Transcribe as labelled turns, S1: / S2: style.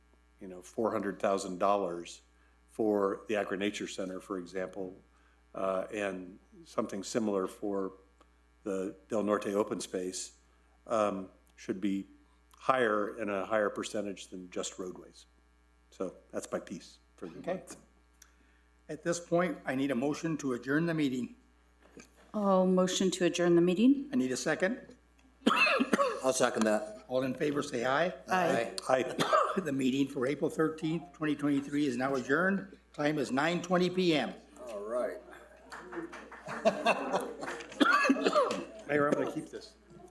S1: you know, four hundred thousand dollars for the Agri Nature Center, for example, uh, and something similar for the Del Norte Open Space, um, should be higher and a higher percentage than just roadways. So that's my piece for the
S2: Okay.
S1: month.
S2: At this point, I need a motion to adjourn the meeting.
S3: I'll motion to adjourn the meeting.
S2: I need a second.
S4: I'll second that.
S2: All in favor, say aye.
S4: Aye.
S1: Aye.
S2: The meeting for April thirteenth, twenty twenty-three is now adjourned. Time is nine twenty PM.
S4: All right.
S2: Mayor, I'm gonna keep this.